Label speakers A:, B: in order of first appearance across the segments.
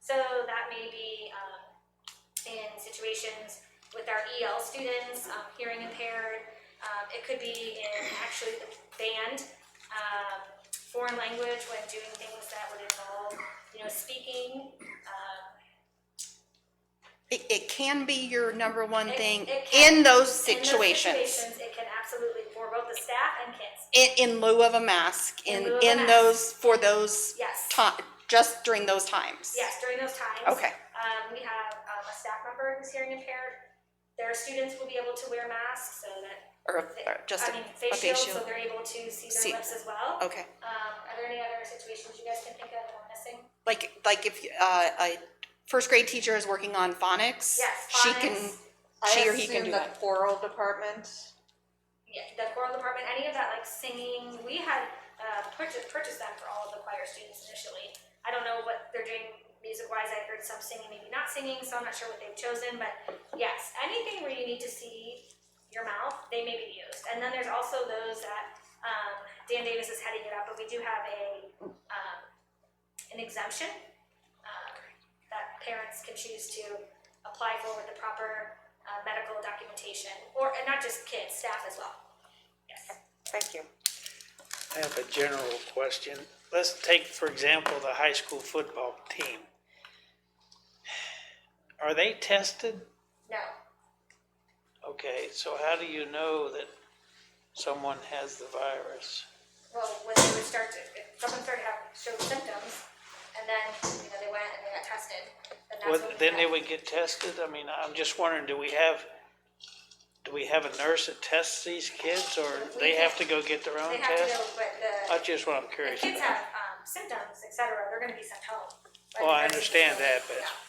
A: So that may be um, in situations with our EL students, um, hearing impaired. Um, it could be in actually the band, um, foreign language when doing things that would involve, you know, speaking. Um,
B: It, it can be your number one
A: It-
B: thing
A: it can-
B: in
A: in
B: those
A: those
B: situations.
A: situations, It can absolutely for both the staff and kids.
B: In, in lieu of a mask,
A: In
B: in,
A: lieu of a
B: in
A: mask.
B: those, for those
A: Yes.
B: ti- just during those times.
A: Yes, during those times.
B: Okay.
A: Um, we have um, a staff member who's hearing impaired. Their students will be able to wear masks so that,
B: Or,
A: they-
B: or just,
A: I mean,
B: a-
A: face
B: a
A: shields,
B: facial.
A: so they're able to see
B: See-
A: their lips as well.
B: okay.
A: Um, are there any other situations you guys can think of that we're missing?
B: Like, like if, uh, a first grade teacher is working on phonics.
A: Yes,
B: She can,
A: phonics.
B: she or he can do
C: I assume
B: that.
C: the choral department,
A: Yeah, the choral department, any of that like singing, we had, uh, purchased, purchased them for all of the choir students initially. I don't know what they're doing music wise, I heard some singing, maybe not singing, so I'm not sure what they've chosen, but yes, anything where you need to see your mouth, they may be used. And then there's also those that, um, Dan Davis is heading it up, but we do have a, um, an exemption, um, that parents can choose to apply for with the proper, uh, medical documentation, or, and not just kids, staff as well. Yes.
B: Thank you.
D: I have a general question. Let's take, for example, the high school football team. Are they tested?
A: No.
D: Okay, so how do you know that someone has the virus?
A: Well, when they would start to, if someone started to have, showed symptoms, and then, you know, they went and they got tested, then that's
D: Would-
A: when. we
D: Then they
A: know.
D: would get tested? I mean, I'm just wondering, do we have, do we have a nurse that tests these kids or they have to go get their
A: They
D: own
A: have to know,
D: test?
A: but the,
D: That's just what I'm
A: the
D: curious
A: kids
D: about.
A: have, um, symptoms, et cetera, they're gonna be sent home. by the
D: Well, I
A: nursing
D: understand
A: facility.
D: that, but-
A: Yeah.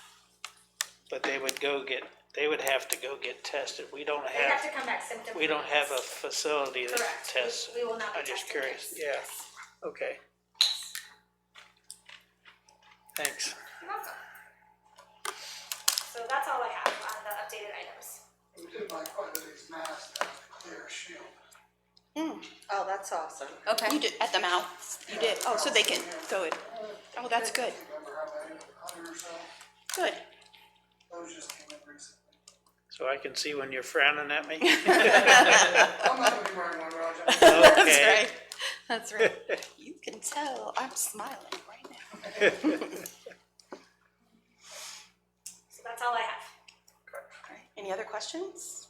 D: But they would go get, they would have to go get tested. We don't
A: They have to
D: have,
A: come back symptom.
D: we don't
A: free.
D: have a facility that
A: Correct. We-
D: tests.
A: We will not be
D: I'm just
A: testing
D: curious.
A: kids.
D: Yeah. Okay. Thanks.
A: You're welcome. So that's all I have on the updated items.
E: We did buy quite a these masks that clear shield.
C: oh, that's awesome.
B: You did, at the mouth, you did, oh, so they can, so it, oh, that's
E: I
B: good,
E: can't remember how many, a hundred or so,
B: good.
E: those just came in recently.
D: So I can see when you're frowning at me?
E: I'm not gonna be wearing one, Roger.
B: That's
D: Okay.
B: right, that's right. You can tell, I'm smiling right now.
A: So that's all I have.
B: All right, Any other questions?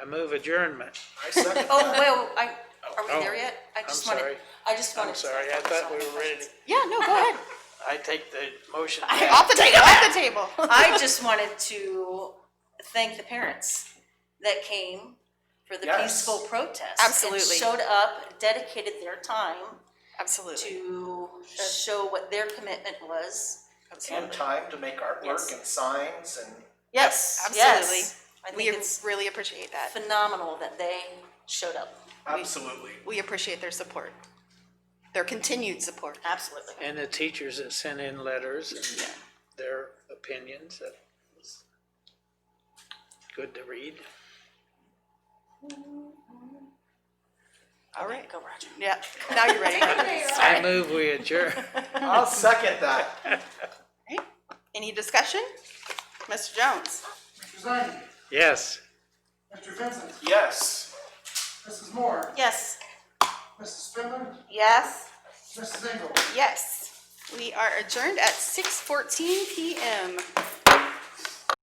D: I move adjournment.
F: Oh, well, I, are
D: Oh,
F: we there yet? I just
D: I'm
F: wanted,
D: sorry.
F: I just wanted.
D: I'm sorry, I thought we were ready. to-
B: Yeah, no, go ahead.
D: I take the motion.
B: Off the table, off the table.
F: I just wanted to thank the parents that came for the
D: Yes.
F: peaceful protest. and
B: Absolutely.
F: Showed up, dedicated their time
B: Absolutely.
F: to show what their commitment was.
G: and time to make
F: Yes.
G: artwork and signs and
F: Yes,
B: Absolutely.
F: yes. I
B: We
F: think it's
B: really appreciate that.
F: phenomenal that they showed up.
G: absolutely.
B: We appreciate their support, their continued support.
F: Absolutely.
D: And the teachers that sent in letters and their opinions. That was Good to read.
F: All right. Go Roger.
B: Yeah, now you're ready.
D: I move we adjourn.
G: I'll second that.
B: Right. Any discussion? Mr. Jones?
E: Mr. Zani,
D: Yes.
E: Mr. Vincent,
G: Yes.
E: Mrs. Moore,
F: Yes.
E: Mrs. Spindler,
B: Yes.
E: Mrs. Engel.
B: Yes. We are adjourned at 6:14 PM.